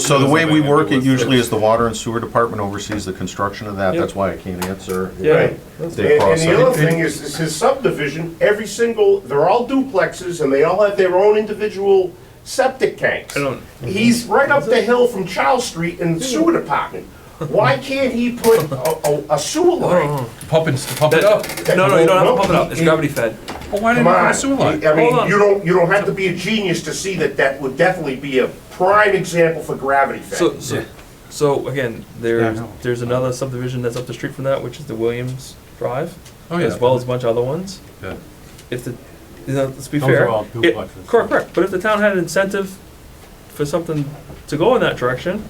So the way we work it usually is the water and sewer department oversees the construction of that, Yep. that's why I can't answer. Yeah. Right. That's They And and cross the it. other thing is, is his subdivision, every single, they're all duplexes and they all have their own individual septic tanks. I don't- He's right up the hill from Charles Street in the sewer department. Why can't he put a, a- a sewer line? Oh. Pump it, pump it up. That- No, no, you don't have to pump it up, it's gravity fed. Well, why didn't Come you on. put a sewer line? I Hold mean, on. you don't, you don't have to be a genius to see that that would definitely be a prime example for gravity So, fed. so, so again, there's, Yeah, I know. there's another subdivision that's up the street from that, which is the Williams Drive, Oh, yeah. as well as a bunch of other ones. Yeah. If the, you know, let's be Those fair. are all it- duplexes. Correct, correct, but if the town had an incentive for something to go in that direction,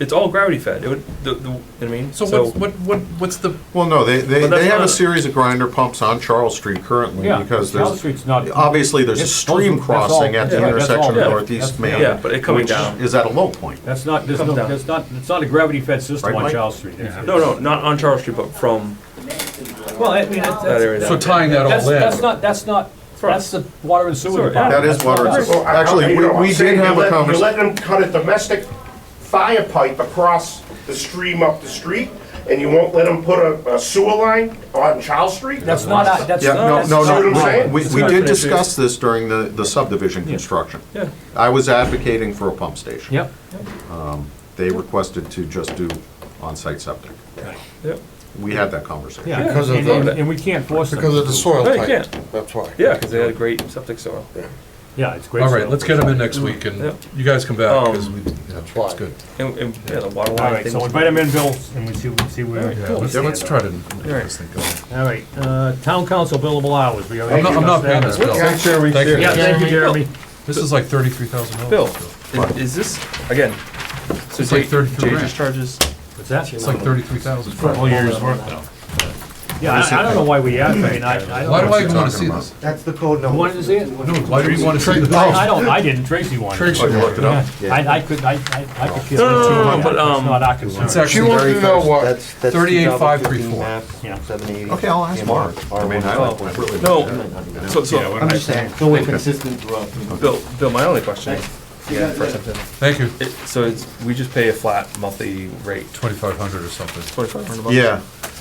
it's all gravity fed, it would, the, the, I mean, So so. what, what, what, what's the, Well, no, they, they, But that's they have not- a series of grinder pumps on Charles Street currently, Yeah, because Charles there's, Street's not- obviously, there's a Yes, stream those are- that's all- crossing at the yeah, that's all, intersection yeah. of Northeast That's- Main. Yeah, but it coming which down. Is at a low point. That's not, there's Comes no, down. there's not, it's not a gravity fed Right, system on Mike? Charles Street. It's- No, no, not on Charles Street, but from Well, I mean, that that's, that's, area. so down. tying that that's- all in? that's not, that's not, that's the water and Sewer, yeah. sewer department. That is water and That's sewer. not Well, us. I- I- Actually, you we- know, we I'm saying did you have a let- convers- You let them cut a domestic fire pipe across the stream up the street, and you won't let them put a a sewer line on Charles Street? That's not, our- that's Yeah, no, not. no, See what I'm no, saying? we, It's we not did finished. discuss this during the, the subdivision construction. Yeah. I was advocating for a pump station. Yep, They requested to just do on-site septic. Yep. We had that conversation. yeah, Because of and, the- and- and we can't force them. Because of the soil No, you type, can't. that's why. Yeah, because they had a great septic soil. Yeah, it's great. All right, stuff. let's get them in next week and Yep. you guys come back, because Um, we, yeah, That's it's why. good. And, and, yeah, the water All line right, thing. so invite them in, Bill, and we see, we see where. Yeah, let's, yeah, let's try to make Alright. this thing go. All right, uh, town council billable hours, we already. I'm not, I'm not paying this discussed bill. Make sure we Thank you. share. that. Yeah, thank you, Jeremy. Jeremy. This is like thirty-three thousand dollars. Bill, i- is this, again, so It's like Jay, 33 Jay grand. just charges, What's that? It's like thirty-three thousand. Whole year's work though. Yeah, I, I don't know why we have, I mean, I, I Why do I even don't. What's he wanna talking see about? this? That's the code You number. Wanted to see it? No, why do we wanna see this? I I don't, I didn't, Tracy wanted. Tracy it. Oh, you looked it up? I, I could, I, I I could feel. No, no, it too, no, no, yeah, but, um, It's not our concern. It's actually She wanted very to know close. what, that's 38,534. Yeah. Okay, I'll ask Mark. I mean, I don't really. no, so, so, I'm just saying, so we're consistent throughout. Bill, Bill, my only question is, again, for a second, Thank you. it- so it's, we just pay a flat monthly rate, Twenty-five hundred or something. twenty-five hundred bucks? Yeah,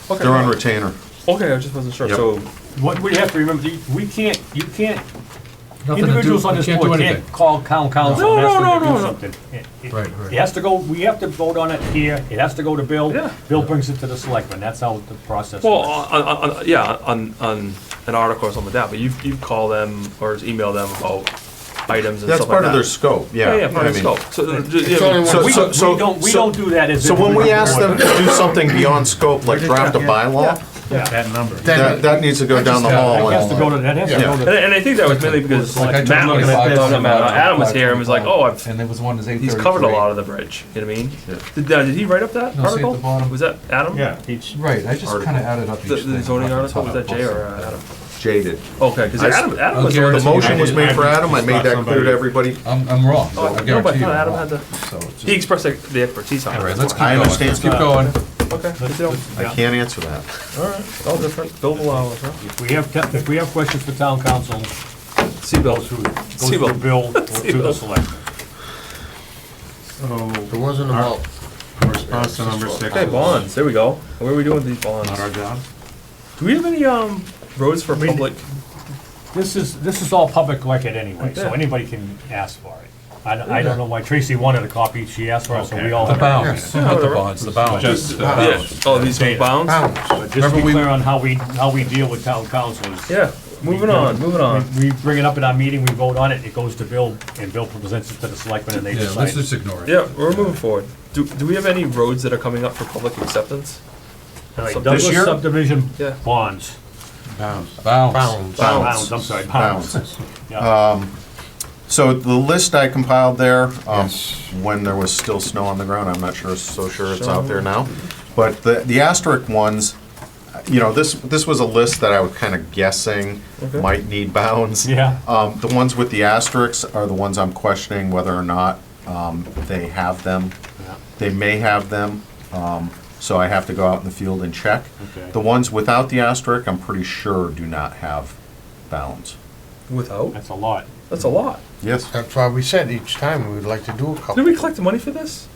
Okay. they're on retainer. Okay, I just wasn't sure, Yep. so, What we have to remember, you- we can't, you can't, Nothing to do, individuals on we this can't do board anything. can't call town council and No, no, ask no, them to do no, no. something. It- it- Right, right. It has to go, we have to vote on it here, it has to go to Bill. Yeah. Bill brings it to the selectmen, that's how the process well, works. on, on, on- yeah, on, on an article or something like that, but you, you call them or email them about items and That's stuff like part of that. their scope, yeah. Yeah, yeah, part I of the mean, scope, so, uh, ju- yeah, only I mean, So, We so, don't, we so, don't, we don't do that as. so if when we were ask board. them to do something beyond scope, like draft a bylaw, That number. that, that needs to go down the That hall. has to go to, and- that has to go to. and, and I think that was mainly because Like I like took Matt, one was- of the no, fives not Matt, and Adam was here and was like, oh, I've And there was one that's eight He's covered a lot of the bridge, you know what I mean? Did, uh, did he write up that No, see at the article? bottom. Was that Adam? Yeah, each. Right, I just kinda added up each The, thing. the zoning off the article, was that top. Jay or uh, Adam? Jaded. Okay, because I- Adam, Adam I'll was the one The guarantee that- motion was made for Adam, I made that clear to everybody. I'm, I'm wrong, Oh, I No, but guarantee I you. thought Adam I'm had the, wrong. So it's he just- expressed the- the expertise on it. All right, let's keep I going. understand. Let's keep going. Okay, good deal. I can't answer that. All different, Bill Bilal, huh? If we have, te- if we have questions for town council, Seabill. goes through, goes Siebel. through Bill, or through the Siebel. selectmen. It wasn't about. Response to number six. Okay, bonds, there we go. What are we doing with these bonds? Not our job. Do we have any, um, roads for public? This is, this is all public record anyway, so Yeah. anybody can ask for it. I, don't- I don't know why Tracy wanted a copy, she asked for it, so we all. The bounds, not the bonds, the bounds. Just, uh, Yeah, oh, these are bounds? But just to Remember be we- clear on how we, how we deal with town council is. Yeah, moving on, moving on. We we bring it up in our meeting, we vote on it, it goes to Bill, and Bill presents it to the selectmen and they Yeah, let's decide. just ignore it. Yeah, we're moving forward. Do, do we have any roads that are coming up for public acceptance? All right, This Douglas year? subdivision Yeah. bonds, Bounds. bounds, I'm sorry, bounds. Yeah. So the list I compiled there, um, when there was still snow on the ground, I'm not sure, so sure it's out there now. But the, the asterisk ones, you know, this, this was a list that I was kind of guessing might need bounds. Yeah. Um, the ones with the asterisks are the ones I'm questioning whether or not, um, they have them. They may have them, um, so I have to go out in the field and check. Okay. The ones without the asterisk, I'm pretty sure do not have bounds. Without? That's a lot. That's a lot. Yes. That's why we said each time we would like to do a couple. Did we collect the money for this?